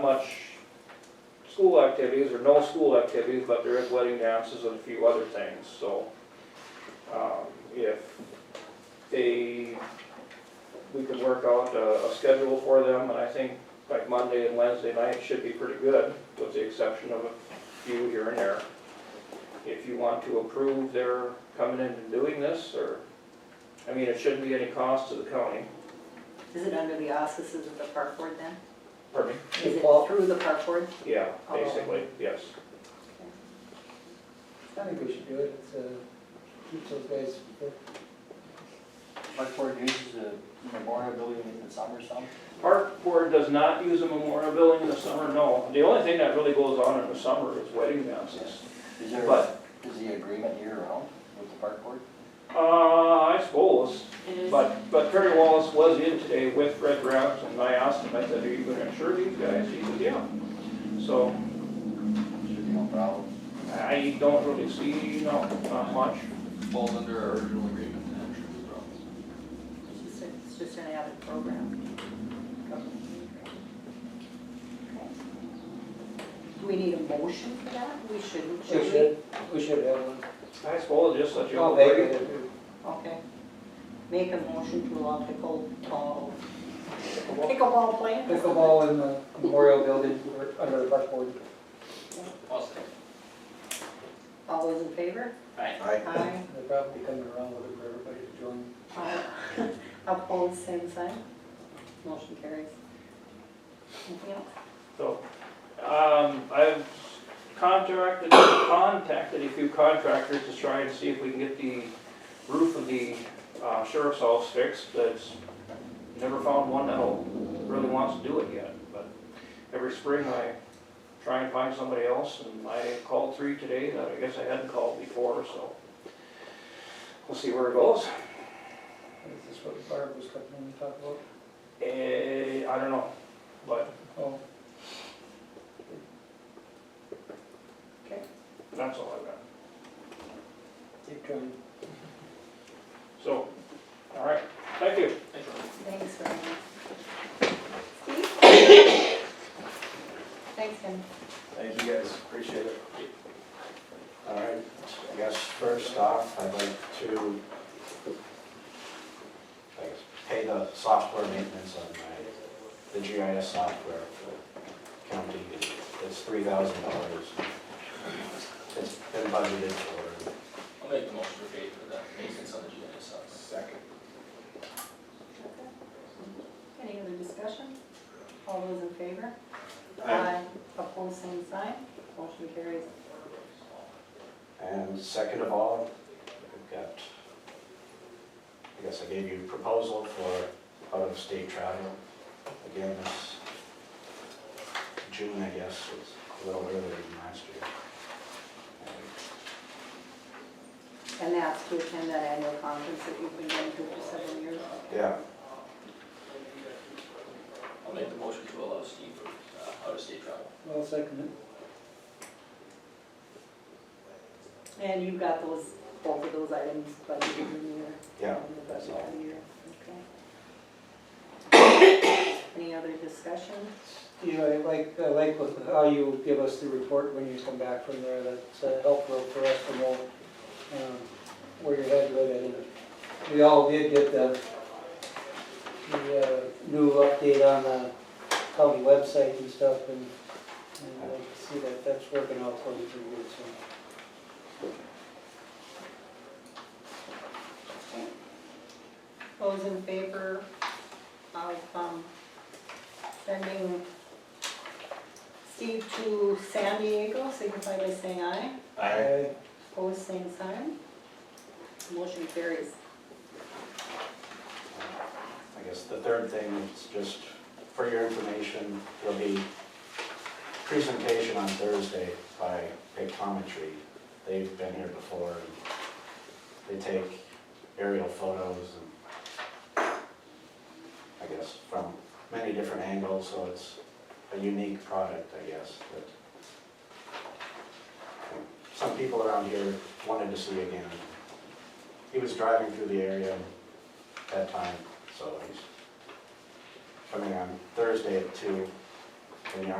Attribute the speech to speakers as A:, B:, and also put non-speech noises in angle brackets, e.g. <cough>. A: Not much school activities, or no school activities, but there is wedding dances and a few other things, so. um, If they, we could work out a, a schedule for them, and I think like Monday and Wednesday night should be pretty good, with the exception of a few here and there. If you want to approve their coming in and doing this, or, I mean, it shouldn't be any cost to the county,
B: Is it under the auspices of the park board then?
A: pardon me,
B: Is it through the park board?
A: yeah,
B: Oh.
A: basically, yes.
C: I think we should do it, it's, uh, keeps those guys,
D: Park Board uses the memorial building in the summer some.
A: Park board does not use a memorial building in the summer, no. The only thing that really goes on in the summer is wedding dances.
D: Is there,
A: But-
D: is the agreement year round with the Park Board?
A: Uh, I suppose,
B: It is.
A: but, but Terry Wallace was in today with Red Raps, and I asked him, I said, are you gonna insure these guys? He said, yeah. So
D: Should be no problem.
A: I don't really see, no, not much.
E: falls under our original agreement, then I'm sure there's problems.
B: It's just a- It's just an added program. Do we need a motion for that? We shouldn't,
C: we
B: should we?
C: should, we should have one.
A: I suppose just let you.
C: I'll make it if you-
B: Okay. Make a motion to allow pickleball, pickleball playing?
C: Pickleball in the memorial building, or under the park board.
B: All those in favor?
D: Aye.
C: <laughs>
B: Aye.
C: They're probably coming around with it for everybody to join.
B: Aye. Opposed, same sign. Motion carries. Anything else?
A: So, um, I've contracted, contacted a few contractors to try and see if we can get the roof of the uh, sheriff's house fixed, that's, never found one that'll, really wants to do it yet, but every spring I try and find somebody else, and I called three today that I guess I hadn't called before, so we'll see where it goes.
C: Is this what Barb was talking, when we talked about?
A: Eh, I don't know, but
C: Oh,
A: that's all I've got.
C: keep trying.
A: So, all right, thank you.
B: Thanks very much. Steve? Thanks, Ken.
F: Thank you guys, appreciate it. All right, I guess first off, I'd like to, I guess, pay the software maintenance on my, the GIS software for county. It's three thousand dollars. It's been budgeted for.
E: I'll make the motion for pay for that maintenance on the GIS side.
F: Second.
B: Any other discussion? All those in favor?
F: Aye.
B: Opposed, same sign. Motion carries.
F: And second of all, we've got, I guess I gave you a proposal for out-of-state travel. Again, this June, I guess, was a little earlier than last year. And
B: And that's to attend that annual conference that you've been going to for several years.
F: Yeah,
E: I'll make the motion to allow Steve for uh, out-of-state travel.
C: Well, second,
B: And you've got those, both of those items budgeted in the year.
F: yeah,
B: in the
F: that's
B: budget
F: all.
B: for the year. Okay. <coughs> Any other discussion?
C: you know, I like, I like with how you give us the report when you come back from there, that's uh, helpful for us to know um, where your head was at. And We all did get the, the uh, new update on the county website and stuff, and and I like to see that that's working out for you pretty good, so.
B: Those in favor of um, sending Steve to San Diego, signify by saying aye.
F: I,
B: Opposed, same sign. Motion carries.
F: I guess the third thing is just for your information, there'll be presentation on Thursday by Pictometry. They've been here before, and they take aerial photos and, I guess, from many different angles, so it's a unique product, I guess, that some people around here wanted to see again. He was driving through the area that time, so he's coming on Thursday at two in the